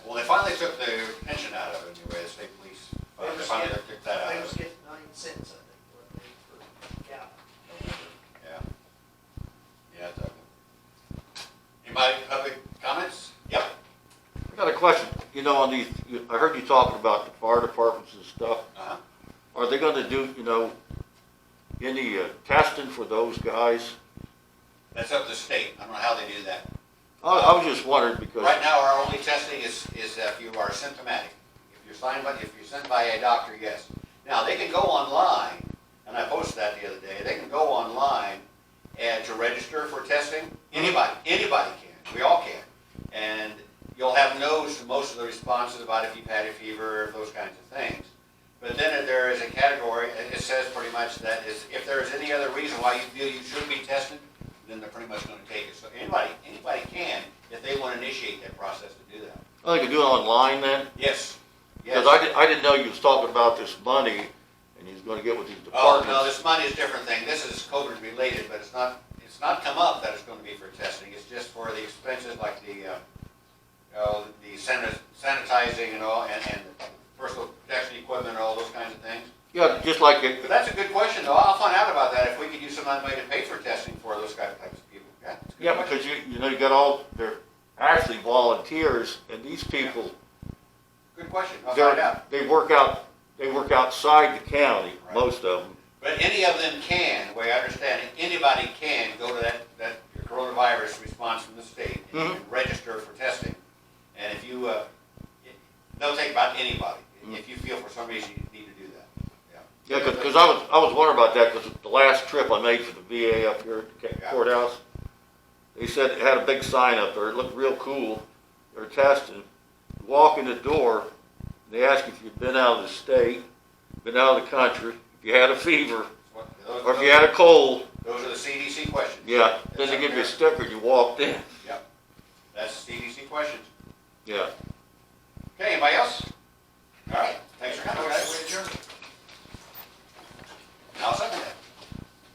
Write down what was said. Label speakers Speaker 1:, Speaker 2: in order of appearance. Speaker 1: they took the pension out of it anyways, they police,
Speaker 2: They
Speaker 1: uh, the
Speaker 2: just
Speaker 1: fund,
Speaker 2: get-
Speaker 1: they took that out
Speaker 2: They
Speaker 1: of
Speaker 2: just
Speaker 1: it,
Speaker 2: get nine cents, I think, what they for cow.
Speaker 1: yeah. Yeah, it's ugly. Anybody, public comments? Yep.
Speaker 3: I got a question, you know, on these, you- I heard you talking about the fire departments and stuff.
Speaker 1: Uh-huh.
Speaker 3: Are they gonna do, you know, any uh, testing for those guys?
Speaker 1: That's up to the state, I don't know how they do that.
Speaker 3: I, I was just wondering because,
Speaker 1: Right now, our only testing is, is if you are symptomatic. If you're signed by, if you're sent by a doctor, yes. Now, they can go online, and I posted that the other day, they can go online and to register for testing. Anybody, anybody can, we all can. And you'll have no's to most of the responses about if you've had a fever, those kinds of things. But then there is a category, and it says pretty much that is, if there is any other reason why you feel you should be tested, then they're pretty much gonna take it. So anybody, anybody can, if they wanna initiate that process to do that.
Speaker 3: oh, they can do it online then?
Speaker 1: Yes. Yes.
Speaker 3: Cause I didn't, I didn't know you was talking about this money and he's gonna get with these
Speaker 1: Oh, no,
Speaker 3: departments.
Speaker 1: this money is a different thing. This is COVID related, but it's not, it's not come up that it's gonna be for testing. It's just for the expenses like the, uh, oh, the sanit- sanitizing and all, and, and personal protection equipment and all those kinds of things.
Speaker 3: Yeah, just like it,
Speaker 1: But that's a good question, though. I'll find out about that, if we could use some money to pay for testing for those kind of types of people. Yeah, it's a good
Speaker 3: yeah,
Speaker 1: question.
Speaker 3: because you, you know, you got all, they're actually volunteers and these people,
Speaker 1: Good question. I'll find out.
Speaker 3: they're, they work out, they work outside the county,
Speaker 1: Right.
Speaker 3: most of them.
Speaker 1: But any of them can, the way I understand it, anybody can go to that, that coronavirus response from the state and
Speaker 3: Mhm.
Speaker 1: register for testing. And if you, uh, it- they'll take about anybody,
Speaker 3: Mm-hmm.
Speaker 1: if you feel for some reason you need to do that, yeah.
Speaker 3: Yeah, cause, 'cause I was, I was wondering about that, cause the last trip I made for the VA up here at the ca- courthouse, they said it had a big sign up there, it looked real cool, they're testing. Walk in the door, they ask if you've been out of the state, been out of the country, if you had a fever,
Speaker 1: What-
Speaker 3: or if
Speaker 1: Those
Speaker 3: you had a cold,
Speaker 1: those are the CDC questions.
Speaker 3: yeah, then they give you a sticker, you walked in.